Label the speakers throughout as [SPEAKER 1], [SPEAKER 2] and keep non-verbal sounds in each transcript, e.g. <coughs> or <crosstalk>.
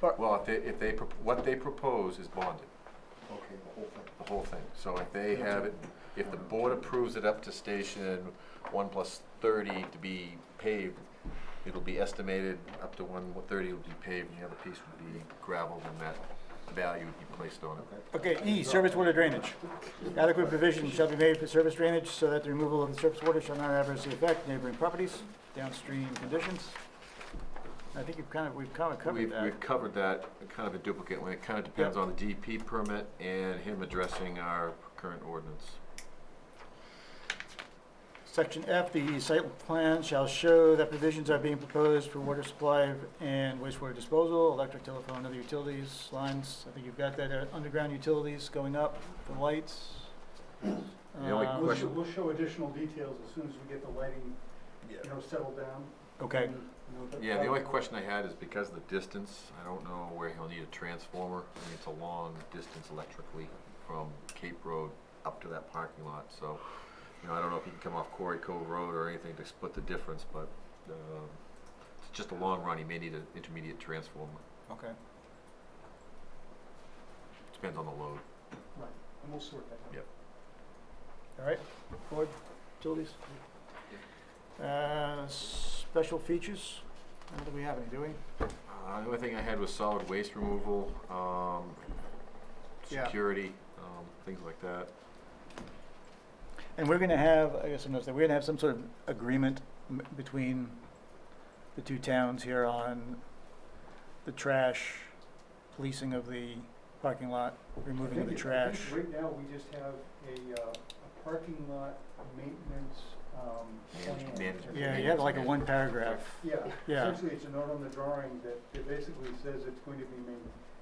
[SPEAKER 1] But-
[SPEAKER 2] Well, if they, if they, prop- what they propose is bonded,
[SPEAKER 1] Okay, the whole thing.
[SPEAKER 2] the whole thing. So if they have it, if the board approves it up to station one plus thirty to be paved, it'll be estimated up to one thirty will be paved, and the other piece would be gravelled, and that value would be placed on it.
[SPEAKER 3] Okay, E, surface water drainage. Adequate provision shall be made for surface drainage so that the removal of the surface water shall not adversely affect neighboring properties, downstream conditions. I think you've kind of, we've kind of covered
[SPEAKER 2] We've,
[SPEAKER 3] that.
[SPEAKER 2] we've covered that kind of a duplicate, and it kind of depends on the DP permit and him addressing our current ordinance.
[SPEAKER 3] Section F, the site plan shall show that provisions are being proposed for water supply and wastewater disposal, electric, telephone, other utilities, lines. I think you've got that, uh, underground utilities going up, the lights.
[SPEAKER 2] The only
[SPEAKER 3] Um,
[SPEAKER 1] We'll
[SPEAKER 2] Question.
[SPEAKER 1] show, Uh, we'll show additional details as soon as we get the lighting, you know, settled down.
[SPEAKER 3] Okay,
[SPEAKER 1] And, you know, that-
[SPEAKER 2] Yeah, the only question I had is because of the distance, I don't know where he'll need a transformer. I mean, it's a long distance electrically from Cape Road up to that parking lot, so, you know, I don't know if he can come off Quarry Cove Road or anything to split the difference, but, um, it's just a long run, he may need an intermediate transformer.
[SPEAKER 3] okay.
[SPEAKER 2] Depends on the load.
[SPEAKER 1] Right, and we'll sort that out.
[SPEAKER 2] Yeah.
[SPEAKER 3] All right, board, utilities? Uh, Special features? I don't think we have any, do we?
[SPEAKER 2] Uh, the only thing I had was solid waste removal, um,
[SPEAKER 3] Yeah.
[SPEAKER 2] security, um, things like that.
[SPEAKER 3] And we're gonna have, I guess I'm not saying, we're gonna have some sort of agreement m- between the two towns here on the trash, policing of the parking lot,
[SPEAKER 1] I
[SPEAKER 3] removing of
[SPEAKER 1] think
[SPEAKER 3] the
[SPEAKER 1] it- I
[SPEAKER 3] trash.
[SPEAKER 1] think Right now, we just have a, uh, a parking lot maintenance, um.
[SPEAKER 2] Manage-
[SPEAKER 1] plan.
[SPEAKER 2] management.
[SPEAKER 3] Yeah, you have like a one paragraph,
[SPEAKER 1] Yeah,
[SPEAKER 3] Yeah.
[SPEAKER 1] essentially, it's a note on the drawing that, that basically says it's going to be main,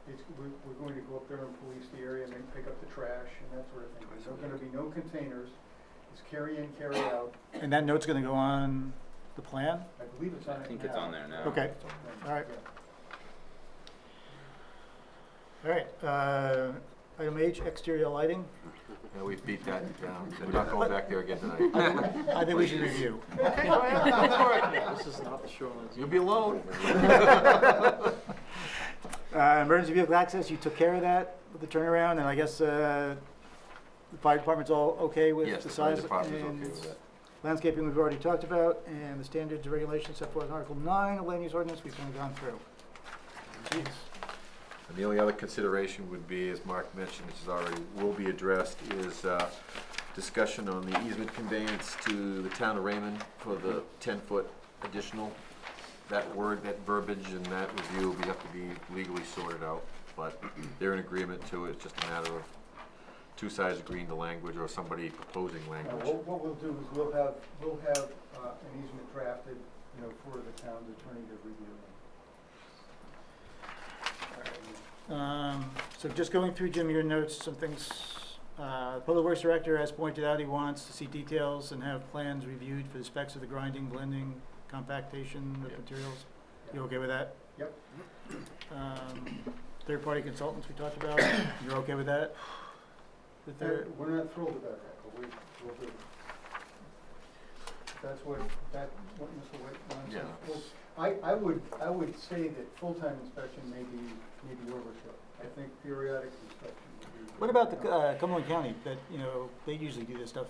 [SPEAKER 1] it's, we're, we're going to go up there and police the area and then pick up the trash and that sort of thing. There's gonna be no containers, it's carry in, carry out,
[SPEAKER 3] and that note's gonna go on the plan?
[SPEAKER 1] I believe it's on it
[SPEAKER 4] I
[SPEAKER 1] now.
[SPEAKER 4] think it's on there now.
[SPEAKER 3] Okay.
[SPEAKER 1] Yeah.
[SPEAKER 3] All right. All right, uh, item H, exterior lighting.
[SPEAKER 2] Yeah, we beat that down, they're not going back there again tonight.
[SPEAKER 3] <laughs> I think we should review.
[SPEAKER 4] This is not the shoreline.
[SPEAKER 2] You'll be alone.
[SPEAKER 3] Uh, emergency vehicle access, you took care of that with the turnaround, and I guess, uh, the fire department's all okay with
[SPEAKER 2] Yes,
[SPEAKER 3] the
[SPEAKER 2] the fire
[SPEAKER 3] size?
[SPEAKER 2] department is okay
[SPEAKER 3] and
[SPEAKER 2] with that.
[SPEAKER 3] Landscaping, we've already talked about, and the standards and regulations set forth in Article nine of land use ordinance, we've kind of gone through. Jeez.
[SPEAKER 2] And the only other consideration would be, as Mark mentioned, which is already, will be addressed, is, uh, discussion on the easement conveyance to the town of Raymond for the ten-foot additional. That word, that verbiage and that review will be, have to be legally sorted out, but they're in agreement to it, it's just a matter of two sides agreeing to language or somebody proposing
[SPEAKER 1] Now,
[SPEAKER 2] language.
[SPEAKER 1] what, what we'll do is we'll have, we'll have, uh, an easement drafted, you know, for the town's attorney to review.
[SPEAKER 3] Um, so just going through, Jim, your notes, some things, uh, Public Works Director has pointed out he wants to see details and have plans reviewed for the specs of the grinding, blending, compactation of
[SPEAKER 2] Yep.
[SPEAKER 3] materials. You okay with that?
[SPEAKER 1] Yep.
[SPEAKER 3] Um, third-party consultants we talked about, <coughs> you're okay with that? The
[SPEAKER 2] Uh,
[SPEAKER 3] third,
[SPEAKER 1] That- We're not thrilled about that, but we, we'll do it. That's what, that, what Mr. White wants.
[SPEAKER 2] Yeah.
[SPEAKER 1] Well, I, I would, I would say that full-time inspection may be, may be overkill. I think periodic inspection would be.
[SPEAKER 3] what about the, uh, Cumberland County, that, you know, they usually do this stuff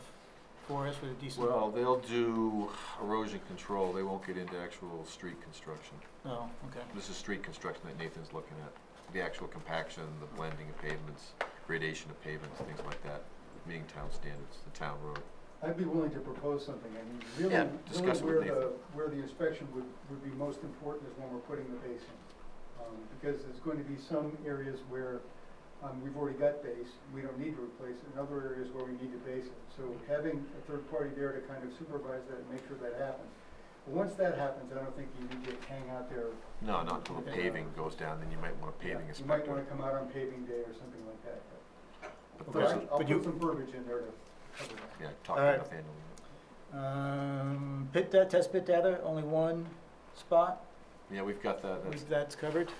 [SPEAKER 3] for us with a decent.
[SPEAKER 2] Well, they'll do erosion control, they won't get into actual street construction.
[SPEAKER 3] Oh, okay,
[SPEAKER 2] This is street construction that Nathan's looking at, the actual compaction, the blending of pavements, gradation of pavements, things like that, meeting town standards, the town road.
[SPEAKER 1] I'd be willing to propose something. I mean, really,
[SPEAKER 2] Yeah,
[SPEAKER 1] really
[SPEAKER 2] discuss it
[SPEAKER 1] where
[SPEAKER 2] with
[SPEAKER 1] the,
[SPEAKER 2] Nathan.
[SPEAKER 1] where the inspection would, would be most important is when we're putting the base in. Um, because there's going to be some areas where, um, we've already got base, we don't need to replace it, and other areas where we need to base it. So having a third party there to kind of supervise that and make sure that happens. But once that happens, I don't think you need to hang out there.
[SPEAKER 2] No, not till the
[SPEAKER 1] Okay.
[SPEAKER 2] paving goes down, then you might want a paving
[SPEAKER 1] You might wanna
[SPEAKER 2] inspector.
[SPEAKER 1] come out on paving day or something like that.
[SPEAKER 2] But
[SPEAKER 1] But
[SPEAKER 2] those
[SPEAKER 1] I'll-
[SPEAKER 2] are-
[SPEAKER 1] I'll
[SPEAKER 3] but you-
[SPEAKER 1] put some verbiage in there to cover that.
[SPEAKER 2] Yeah, talk
[SPEAKER 3] Alright.
[SPEAKER 2] to Nathaniel.
[SPEAKER 3] um, pit, da- test pit data, only one spot,
[SPEAKER 2] Yeah, we've got that, that's,
[SPEAKER 3] that's covered,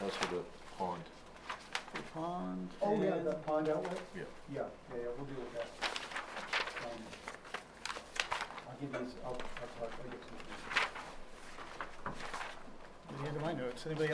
[SPEAKER 2] that's for the pond.
[SPEAKER 3] the pond.
[SPEAKER 1] Oh, yeah,
[SPEAKER 3] and-
[SPEAKER 1] the pond outlet?
[SPEAKER 2] Yeah.
[SPEAKER 1] Yeah, yeah, yeah, we'll deal with that. Um, I'll give you, this- I'll, I'll talk, I'll get some.
[SPEAKER 3] At the end of my notes, anybody